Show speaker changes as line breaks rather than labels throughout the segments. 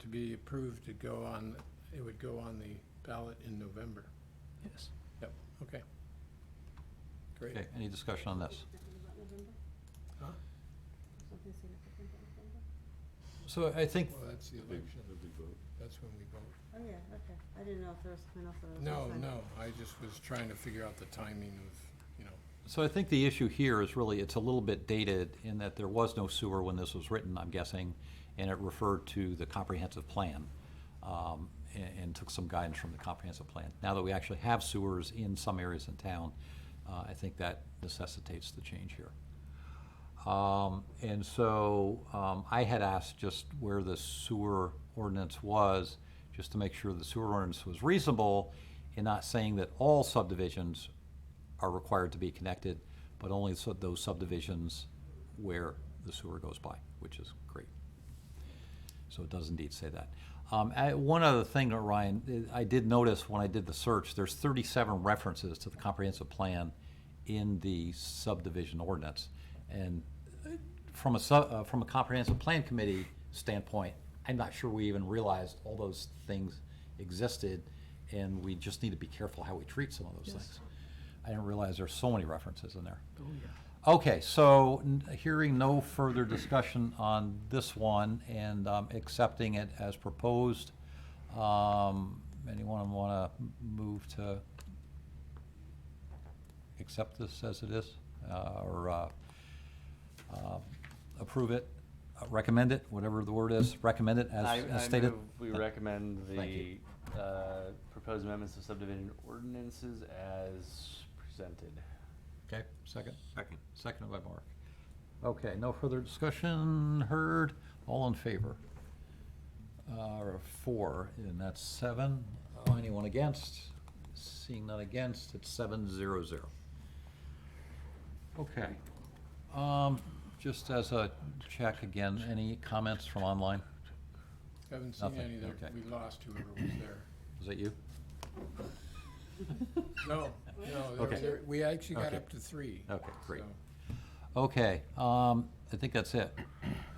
to be approved to go on, it would go on the ballot in November.
Yes.
Yep, okay. Great.
Okay, any discussion on this?
Huh?
So I think,
Well, that's the election. That's when we vote.
Oh, yeah, okay. I didn't know if there was something else that I was.
No,
missing.
no, I just was trying to figure out the timing of, you know,
so I think the issue here is really, it's a little bit dated in that there was no sewer when this was written, I'm guessing, and it referred to the comprehensive plan, um, and, and took some guidance from the comprehensive plan. Now that we actually have sewers in some areas in town, uh, I think that necessitates the change here. Um, and so, um, I had asked just where the sewer ordinance was, just to make sure the sewer ordinance was reasonable in not saying that all subdivisions are required to be connected, but only so those subdivisions where the sewer goes by, which is great. So it does indeed say that. Um, I- one other thing, uh, Ryan, I I did notice when I did the search, there's thirty-seven references to the comprehensive plan in the subdivision ordinance. And uh, from a su- uh, from a comprehensive plan committee standpoint, I'm not sure we even realized all those things existed, and we just need to be careful how we treat some of those things. I didn't realize there's so many references in there. Okay, so n- hearing no further discussion on this one and um, accepting it as proposed, um, anyone want to move to accept this as it is, uh, or uh, uh, approve it, uh, recommend it, whatever the word is, recommend it as
I-
as
I
stated?
move We recommend
Thank
the
you.
uh, proposed amendments to subdivision ordinances as presented.
Okay, second? Second. Seconded by Mark. Okay, no further discussion heard, all in favor? Uh, four, and that's seven. Uh, Anyone against? Seeing none against, it's seven zero zero. Okay. Um, just as a check again, any comments from online?
haven't seen
Nothing,
any
okay.
that, we lost whoever was there.
Is that you?
No, no, there was-
Okay.
there- we actually got
Okay.
up to three.
Okay, great.
so-
Okay, um, I think that's it,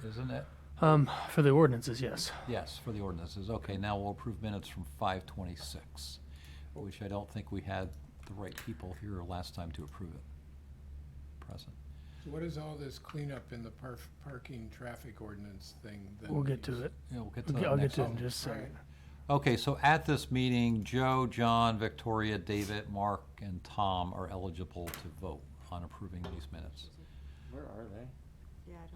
isn't it?
Um, for the ordinances, yes.
Yes, for the ordinances. Okay, now we'll approve minutes from five twenty-six, which I don't think we had the right people here last time to approve it. Present.
So what is all this cleanup in the parf- parking traffic ordinance thing? that
We'll get
we-
to it.
Yeah, we'll get to
Okay,
that
I'll get
next
to it in
time.
just a second.
Alright.
Okay, so at this meeting, Joe, John, Victoria, David, Mark, and Tom are eligible to vote on approving these minutes.
Where are they?
Yeah, I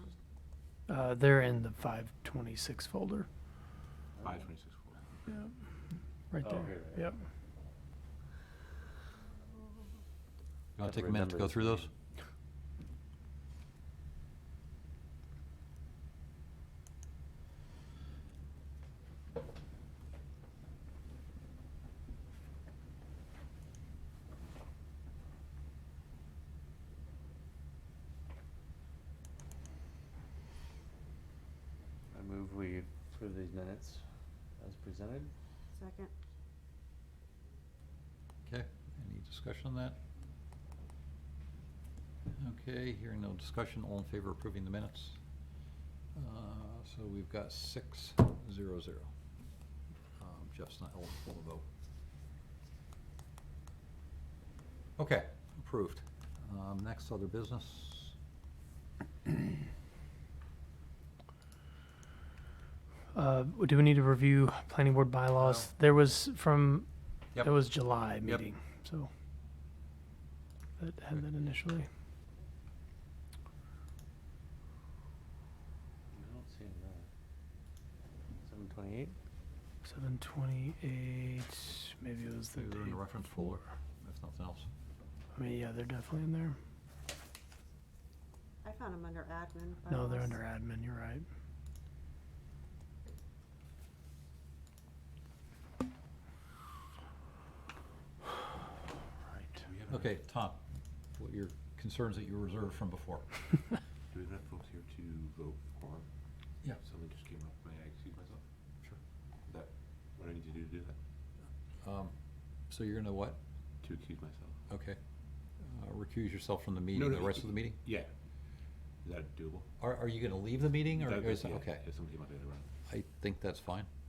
don't.
Uh, they're in the five twenty-six folder.
Five twenty-six four.
Yep. Right
Oh,
there.
here they are.
Yep.
You wanna
Gotta
take a minute to
remember
go
this
through those?
meeting. I move we approve these minutes as presented.
Second.
Okay, any discussion on that? Okay, hearing no discussion, all in favor of approving the minutes? Uh, So we've got six, zero, zero. Um, Jeff's not eligible to vote. Okay, approved. Um, Next, other business?
Uh, do we need to review planning board bylaws? There was from,
Yep.
that was July
Yep.
meeting, so. That had
Okay.
that initially.
I don't see it now. Seven twenty-eight?
Seven twenty-eight, maybe it was the
They're in
date.
the reference folder, if nothing else.
I mean, yeah, they're definitely in there.
I found them under admin.
No, they're
bylaws.
under admin, you're right. Right.
Okay, Tom, what your concerns that you reserved from before?
Do we have enough folks here to vote for?
Yeah.
Something just came up, may I excuse myself? Sure. That, what do I need to do to do that?
Um, So you're gonna what?
To excuse myself?
Okay. Uh, Recuse yourself from the meeting,
no,
the
you-
rest of the meeting?
Yeah. Is that doable?
Are, are you gonna leave the meeting or
That-
is,
yeah,
okay,
If somebody might interrupt.
I think that's fine.